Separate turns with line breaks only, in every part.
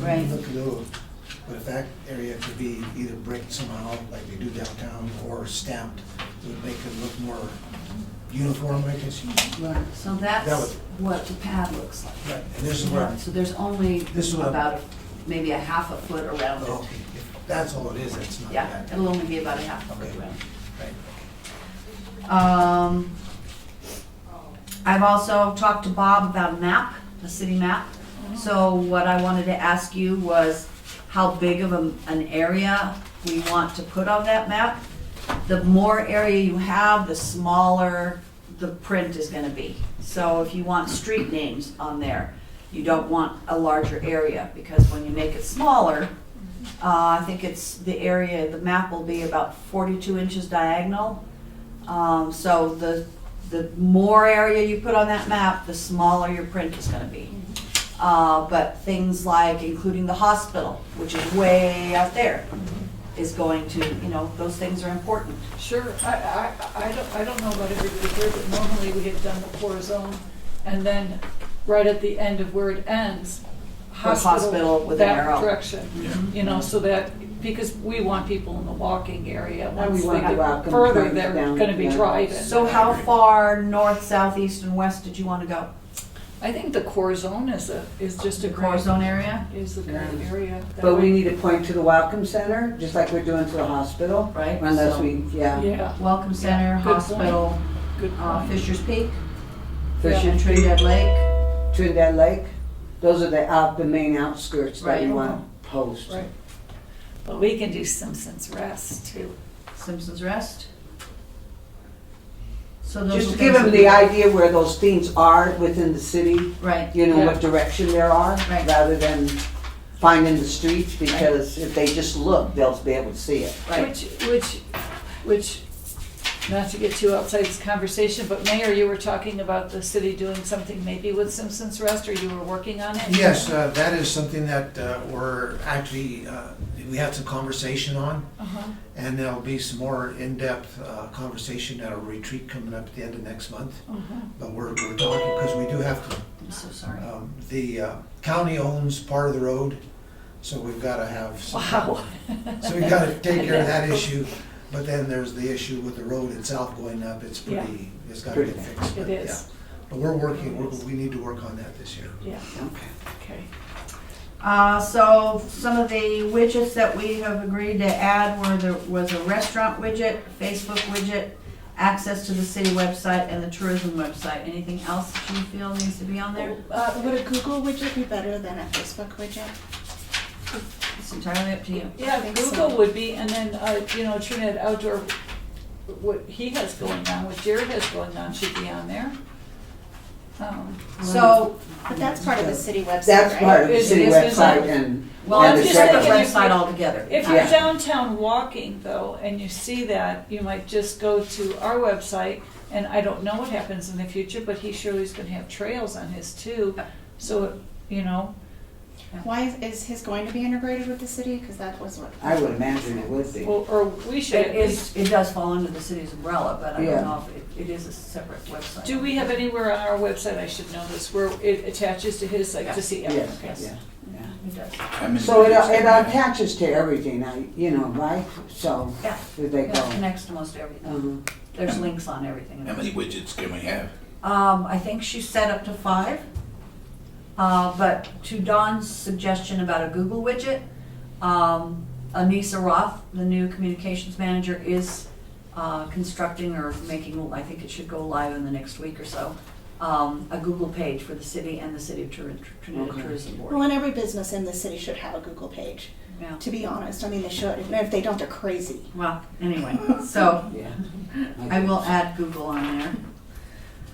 Right.
Look at those. But if that area could be either bricked somehow, like they do downtown, or stamped, it would make it look more uniform, I guess. you-
Right, so
That
that's
was-
what the pad looks like.
Right, and this is where,
So there's only
This is what-
about, a- maybe a half a foot around
oh, okay,
it.
if that's all it is, that's not
Yeah,
bad.
it'll only be about a half a foot
Okay.
around.
Right.
Um, I've also talked to Bob about a map, a city map. So what I wanted to ask you was how big of a- an area we want to put on that map. The more area you have, the smaller the print is gonna be. So if you want street names on there, you don't want a larger area, because when you make it smaller, uh, I think it's, the area, the map will be about forty-two inches diagonal, um, so the, the more area you put on that map, the smaller your print is gonna be. Uh, but things like including the hospital, which is way out there, is going to, you know, those things are important.
Sure, I, I, I don't, I don't know about everybody here, but normally we have done the core zone, and then right at the end of where it ends,
With
hospital.
hospital with an arrow.
That direction, you know, so that, because we want people in the walking area, once
we
they
want to
get
walk 'em
further,
down,
they're
down,
gonna be
yeah.
driving.
So how far north, south, east, and west did you wanna go?
I think the core zone is a, is just a
The core
great,
zone area,
is the great area. that
But we
way-
need to point to the Welcome Center, just like we're doing to the hospital.
Right,
Unless
so-
we, yeah,
Yeah,
Welcome Center,
Yeah, good point.
hospital,
good
uh,
point.
Fisher's Peak,
Fisher Tree,
Trinidad Lake,
Trinidad Lake, those are the out, the main outskirts that you
Right.
wanna post.
Right. But we can do Simpson's Rest too.
Simpson's Rest. So those
Just
are
to give
things
them
that
the
we-
idea where those themes are within the city,
Right.
you know,
Yeah.
what direction there are,
Right.
rather than finding the streets, because if they just look, they'll be able to see it.
Right.
Which, which, which, not to get too outside this conversation, but Mayor, you were talking about the city doing something maybe with Simpson's Rest, or you were working on it?
Yes, uh, that is something that uh, we're actually, uh, we had some conversation on,
Uh-huh.
and there'll be some more in-depth uh, conversation at a retreat coming up at the end of next month.
uh-huh.
But we're, we're talking, because we do have to
I'm so sorry.
Um, The uh, county owns part of the road, so we've got to have, some-
Wow.
so we've got to take care of that issue. But then there's the issue with the road itself going up, it's pretty, it's got to get fixed.
It
but yeah.
is,
But we're working, we're- we need to work on that this year.
yeah,
Okay.
okay.
Uh, so some of the widgets that we have agreed to add were there was a restaurant widget, Facebook widget, access to the city website and the tourism website. Anything else that you feel needs to be on there?
Uh, would a Google widget be better than a Facebook widget?
It's entirely up to you.
Yeah,
think so.
Google would be, and then, uh, you know, Trinidad Outdoor, what he has going on, what Jared has going on should be on there. Um,
So,
But that's part of the city website,
That's
right?
part of
It-
the city
it is, isn't
website
it?
and.
well,
and
I'm
I'm
the
just
saying
at the
second-
if you-
website altogether.
If you're
Yeah.
downtown walking though, and you see that, you might just go to our website, and I don't know what happens in the future, but he surely is gonna have trails on his too, so, you know,
Why is, is his going to be integrated with the city? Because that was what.
I would imagine it would be.
or, or we should
It
at
is,
least,
it does fall under the city's umbrella, but I
Yeah.
don't know if it, it is a separate website.
do we have anywhere on our website, I should know this, where it attaches to his, like, to see
Yes,
everything?
yeah, yeah.
It does.
I'm in
So it, uh,
favor of
it
that.
attaches to everything, I, you know, right? So,
Yeah.
did they
It
go?
connects to most everything.
Um,
There's links on everything.
How many widgets can we have?
Um, I think she set up to five. Uh, but to Don's suggestion about a Google widget, um, Anissa Roth, the new communications manager, is uh, constructing or making, I think it should go live in the next week or so, um, a Google page for the city and the City of Tur- Trinidad
Okay.
Tourism Board.
Well, and every business in the city should have a Google page,
Yeah.
to be honest. I mean, they should. And if they don't, they're crazy.
Well, anyway, so
yeah.
I will add Google on there.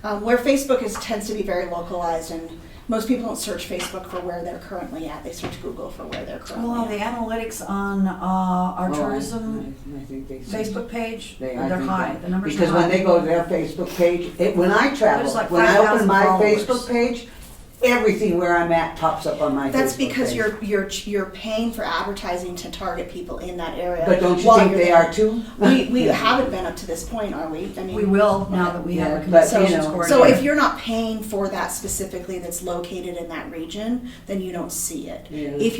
Um, where Facebook is tends to be very localized, and most people don't search Facebook for where they're currently at. They search Google for where they're currently
Well, the
at.
analytics on uh, our
Oh, I-
tourism
I- I think they-
Facebook page,
They- I
they're
think
high,
that-
the numbers are
Because
high.
when they go to their Facebook page, it, when I travel,
There's like
when I
5,000
open my
followers.
Facebook page, everything where I'm at pops up on my Facebook
That's because
page.
you're you're you're paying for advertising to target people in that area.
But don't you
while
think
you're
they
there.
are too?
We we
Yeah.
haven't been up to this point, are we? I mean,
We will now that we
Yeah,
have a
but, you
communications
know-
coordinator.
So if you're not paying for that specifically that's located in that region, then you don't see it.
Yeah.
If you're